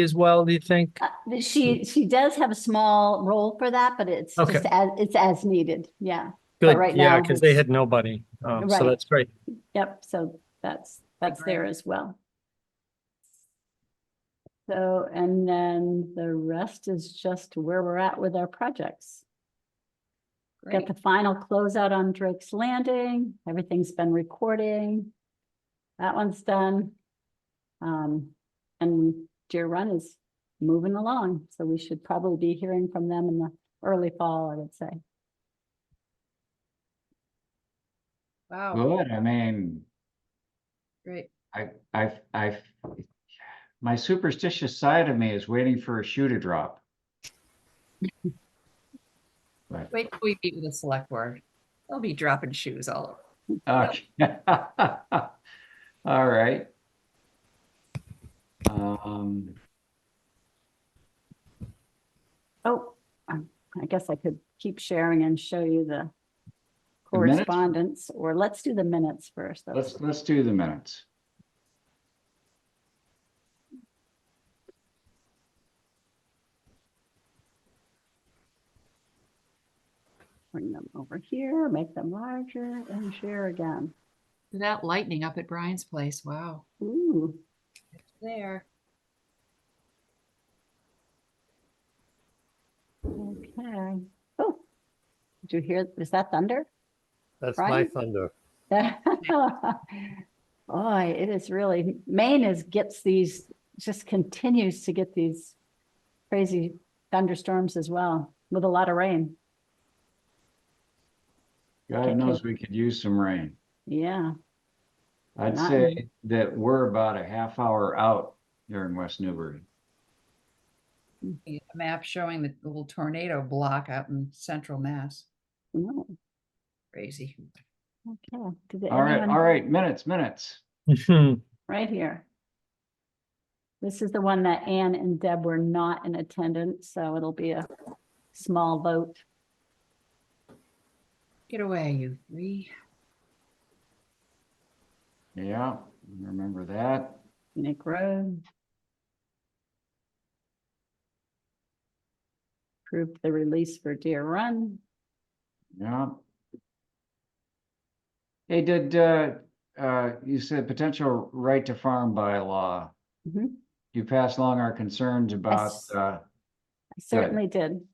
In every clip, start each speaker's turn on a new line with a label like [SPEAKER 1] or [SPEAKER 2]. [SPEAKER 1] as well, do you think?
[SPEAKER 2] Uh, She, she does have a small role for that, but it's
[SPEAKER 1] Okay.
[SPEAKER 2] just as, it's as needed. Yeah.
[SPEAKER 1] Good,
[SPEAKER 2] right
[SPEAKER 1] yeah,
[SPEAKER 2] now
[SPEAKER 1] because they
[SPEAKER 2] it's-
[SPEAKER 1] had nobody. Um, so
[SPEAKER 2] Right.
[SPEAKER 1] that's great.
[SPEAKER 2] Yep. So that's, that's there as well. So, and then the rest is just where we're at with our projects. Got
[SPEAKER 3] Great.
[SPEAKER 2] the final closeout on Drake's Landing. Everything's been recording. That one's done. Um, and Deer Run is moving along, so we should probably be hearing from them in the early fall, I would say.
[SPEAKER 3] Wow,
[SPEAKER 4] Good, I mean,
[SPEAKER 3] great.
[SPEAKER 4] I, I, I, my superstitious side of me is waiting for a shoe to drop. But,
[SPEAKER 3] Wait till we meet with the select board. They'll be dropping shoes all over.
[SPEAKER 4] okay. All right. Um,
[SPEAKER 2] Oh, um, I guess I could keep sharing and show you the
[SPEAKER 4] The minutes?
[SPEAKER 2] correspondence, or let's do the minutes first. That's-
[SPEAKER 4] let's, let's do the minutes.
[SPEAKER 2] Bring them over here, make them larger and share again.
[SPEAKER 3] That lightning up at Brian's place, wow.
[SPEAKER 2] Ooh,
[SPEAKER 3] There.
[SPEAKER 2] okay. Oh, did you hear, is that thunder?
[SPEAKER 5] That's my
[SPEAKER 2] Right?
[SPEAKER 5] thunder.
[SPEAKER 2] Boy, it is really, Maine is, gets these, just continues to get these crazy thunderstorms as well, with a lot of rain.
[SPEAKER 4] God knows we could use some rain.
[SPEAKER 2] Yeah.
[SPEAKER 4] I'd
[SPEAKER 2] Not-
[SPEAKER 4] say that we're about a half hour out here in West Newbury.
[SPEAKER 3] A map showing the little tornado block out in central Mass.
[SPEAKER 2] no,
[SPEAKER 3] Crazy.
[SPEAKER 2] Okay. Did
[SPEAKER 4] All right,
[SPEAKER 2] anyone-
[SPEAKER 4] all right, minutes, minutes.
[SPEAKER 2] right here. This is the one that Ann and Deb were not in attendance, so it'll be a small vote.
[SPEAKER 3] Get away, you three.
[SPEAKER 4] Yeah, remember that.
[SPEAKER 2] Nick Road. Approved the release for Deer Run.
[SPEAKER 4] Yeah. Hey, did, uh, uh, you said potential right to farm bylaw.
[SPEAKER 2] Mhm.
[SPEAKER 4] You passed along our concerns about,
[SPEAKER 2] Yes.
[SPEAKER 4] uh,
[SPEAKER 2] I certainly did.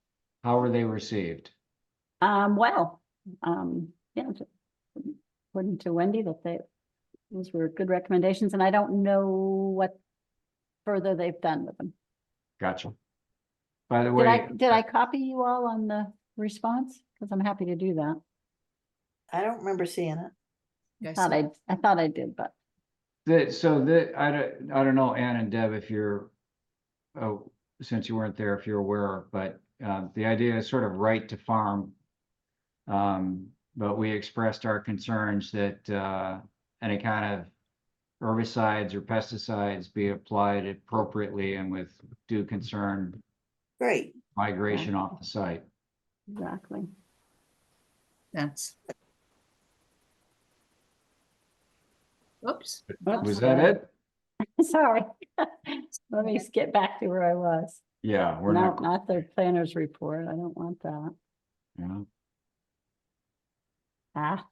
[SPEAKER 4] how were they received?
[SPEAKER 2] Um, well, um, yeah. t- According to Wendy, that they, those were good recommendations, and I don't know what further they've done with them.
[SPEAKER 4] Gotcha. By the
[SPEAKER 2] Did I,
[SPEAKER 4] way,
[SPEAKER 2] did I copy you all on the response? Because I'm happy to do that.
[SPEAKER 6] I don't remember seeing it.
[SPEAKER 3] You guys
[SPEAKER 2] Thought
[SPEAKER 3] saw-
[SPEAKER 2] I, I thought I did, but
[SPEAKER 4] the, so the, I don't, I don't know, Ann and Deb, if you're, oh, since you weren't there, if you're aware, but, uh, the idea is sort of right to farm. Um, but we expressed our concerns that, uh, any kind of herbicides or pesticides be applied appropriately and with due concern
[SPEAKER 6] Great.
[SPEAKER 4] migration off the site.
[SPEAKER 2] exactly.
[SPEAKER 3] That's. Oops.
[SPEAKER 4] Was that it?
[SPEAKER 2] Sorry. Let me just get back to where I was.
[SPEAKER 4] Yeah, we're
[SPEAKER 2] No,
[SPEAKER 4] not,
[SPEAKER 2] not the planner's report. I don't want that.
[SPEAKER 4] yeah.
[SPEAKER 2] Ah,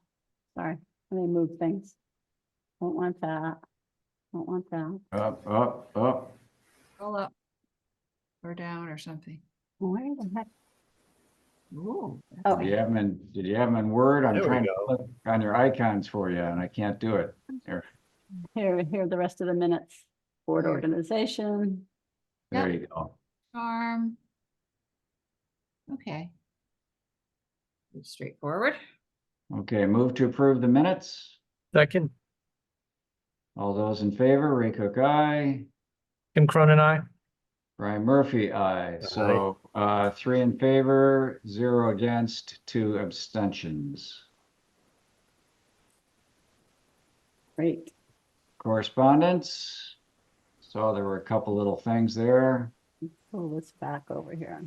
[SPEAKER 2] sorry. Let me move things. Don't want that. Don't want that.
[SPEAKER 4] up, up, up.
[SPEAKER 3] All up. Or down or something.
[SPEAKER 2] Where the heck?
[SPEAKER 3] Ooh. that's
[SPEAKER 2] Oh,
[SPEAKER 4] Did you have them in, did you have them in Word? I'm
[SPEAKER 5] There we
[SPEAKER 4] trying to
[SPEAKER 5] go.
[SPEAKER 4] click on your icons for you and I can't do it.
[SPEAKER 2] here, here are the rest of the minutes. Board
[SPEAKER 3] There.
[SPEAKER 2] organization.
[SPEAKER 3] Yeah.
[SPEAKER 4] There you go.
[SPEAKER 3] Charm. Okay. Straightforward.
[SPEAKER 4] Okay, move to approve the minutes.
[SPEAKER 1] Second,
[SPEAKER 4] All those in favor, Ray Cook, aye.
[SPEAKER 1] Kim Cronin, I.
[SPEAKER 4] Brian Murphy, aye. So uh, three in favor, zero against, two abstentions.
[SPEAKER 2] Great.
[SPEAKER 4] Correspondence. Saw there were a couple little things there.
[SPEAKER 2] Pull this Oh, back over here.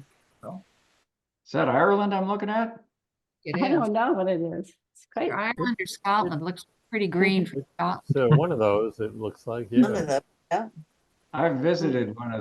[SPEAKER 4] Is that Ireland I'm looking at?
[SPEAKER 3] It
[SPEAKER 2] I
[SPEAKER 3] is.
[SPEAKER 2] don't know what it is. It's quite,
[SPEAKER 3] Ireland or Scotland looks pretty green for Scotland.
[SPEAKER 5] So one of those, it looks like, yeah.
[SPEAKER 6] None of those.
[SPEAKER 4] I've visited one of